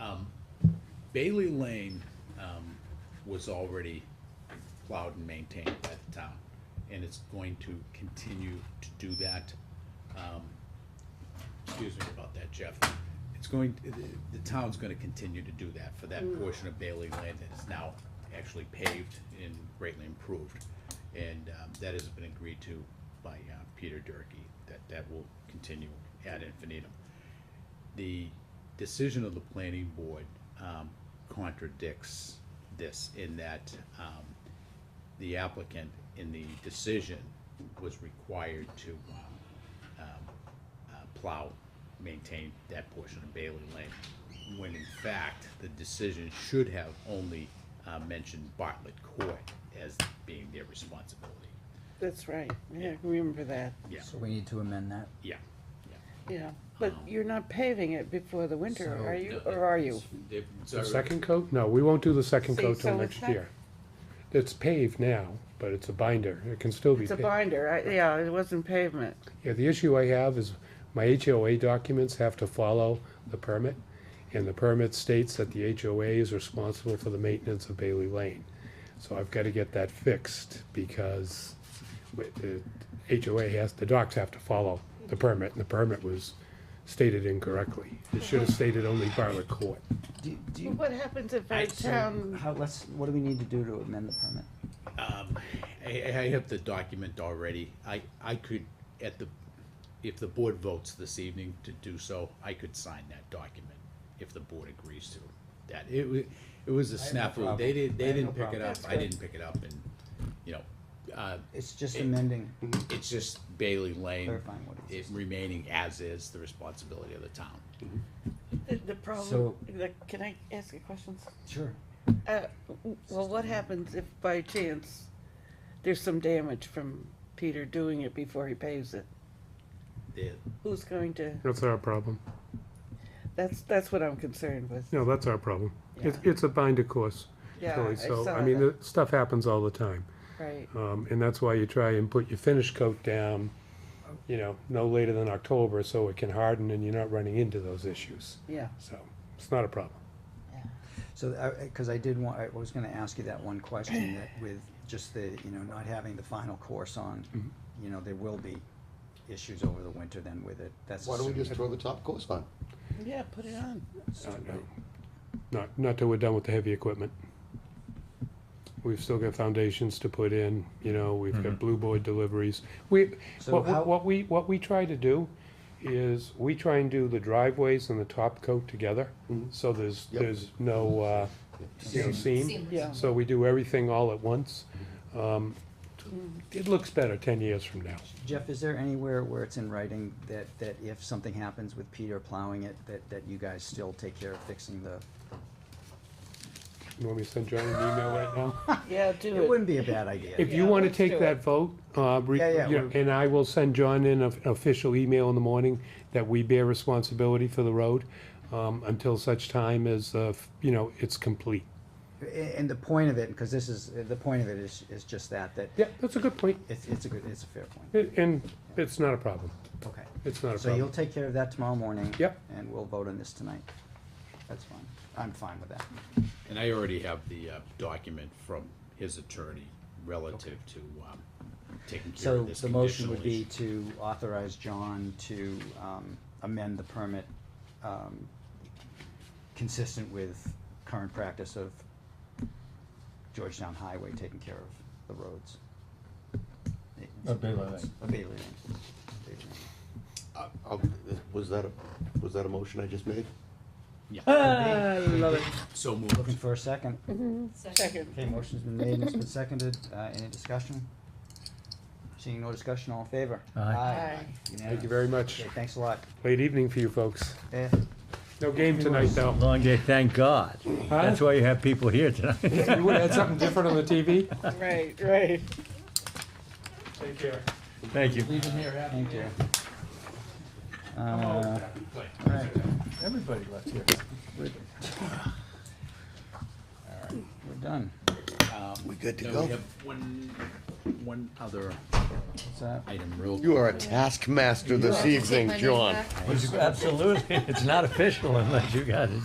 Um, Bailey Lane um, was already plowed and maintained by the town, and it's going to continue to do that. Um, Excuse me about that, Jeff. It's going, the- the town's gonna continue to do that for that portion of Bailey Lane that is now actually paved and greatly improved. And um, that has been agreed to by uh, Peter Durkey, that that will continue ad infinitum the decision of the planning board um, contradicts this in that um, the applicant in the decision was required to um, um, uh, plow, maintain that portion of Bailey Lane, when in fact, the decision should have only uh, mentioned Bartlett Court as being their responsibility. That's right, yeah, I remember that, Yeah, So we need to amend that. yeah, yeah. yeah. But you're not paving it before the winter, So- are you, No, or are you? it's- they've- The second coat? No, we won't do the second See, coat till so next it's not- year. It's paved now, but it's a binder. It can still be It's a paved. binder, I- yeah, it wasn't pavement. Yeah, the issue I have is my HOA documents have to follow the permit, and the permit states that the HOA is responsible for the maintenance of Bailey Lane. So I've gotta get that fixed, because wi- the HOA has, the docs have to follow the permit, and the permit was stated incorrectly. It should have stated only Bartlett Court. Do, do But you, What happens if our so- town, how, let's, what do we need to do to amend the permit? Um, I, I have the document already. I, I could, at the, if the board votes this evening to do so, I could sign that document if the board agrees to that. It wa, it was a have no snafu. problem. They did, I they have didn't no pick it problem. up. That's I didn't pick it up and, you know, uh, It's just It- Mm-hmm. amending, it's just Bailey Lane, clarifying what it it is. remaining as is the responsibility of the town. the- the problem, So- the- can I ask you questions? Sure. Uh, w- Well, what happens if by chance there's some damage from Peter doing it before he paves it? The, Who's going to, That's our problem. that's, that's what I'm concerned with. No, that's our problem. It's, Yeah. it's a binder course, Yeah, Tilly, I so, saw I mean, that, the stuff happens all the time. Right, Um, and that's why you try and put your finish coat down, you know, no later than October, so it can harden and you're not running into those issues. yeah, So, it's not a problem. So, I, cause I did want, I was gonna ask you that one question that with just the, you know, not having the final course on, you know, there will be issues over the winter then with it. That's Why don't we assuming- just throw the top course on? yeah, put it on. Uh, no. Not, not till we're done with the heavy equipment. We've still got foundations to put in, you know, we've got blue board deliveries. We, So what, how- what- what we, what we try to do is, we try and do the driveways and the top coat together. So there's, Yep. there's no, uh, you know, seam. Seamless. Yeah. So we do everything all at once. Um, It looks better ten years from now. Jeff, is there anywhere where it's in writing that, that if something happens with Peter plowing it, that, that you guys still take care of fixing the? You want me to send John an email right now? Yeah, do it. It wouldn't be a bad idea. If you Yeah, wanna let's do take it. that vote, uh, re- Yeah, yeah, you know, we're- and I will send John in a- an official email in the morning that we bear responsibility for the road, um, until such time as, uh, f- you know, it's complete. A- And the point of it, because this is, the point of it is, is just that, that Yeah, that's a good point, it's, it's a good, it's a fair point. A- and it's not a problem, Okay. it's not a So you'll problem. take care of that tomorrow morning? Yep. And we'll vote on this tonight. That's fine. I'm fine with that. and I already have the, uh, document from his attorney relative to, um, taking care So of this the motion would conditional issue. be to authorize John to um, amend the permit um, consistent with current practice of Georgetown Highway taking care of the roads. Of Bailey Lane. Of Bailey Lane. Bailey Lane. I- I'll- Uh, Was that, a was that a motion I just made? Ah, So moved. Looking for a second. Second. Okay, motion's been made and it's been seconded. Uh, Any discussion? Seeing no discussion, all in favor? Aye. Aye. Thank you very much. Okay, thanks a lot. Late evening for you folks. Eh, No game tonight, though. Long day, thank God. That's why you have people here tonight. You would've had something different on the TV? Right, right. Take care. Thank you. Thank you. Uh, all right. Everybody left here. We're done. We good No, we have one, one other What's that? item real. You are a taskmaster this Take my evening, name John. back. Absolutely. It's not official unless you got it.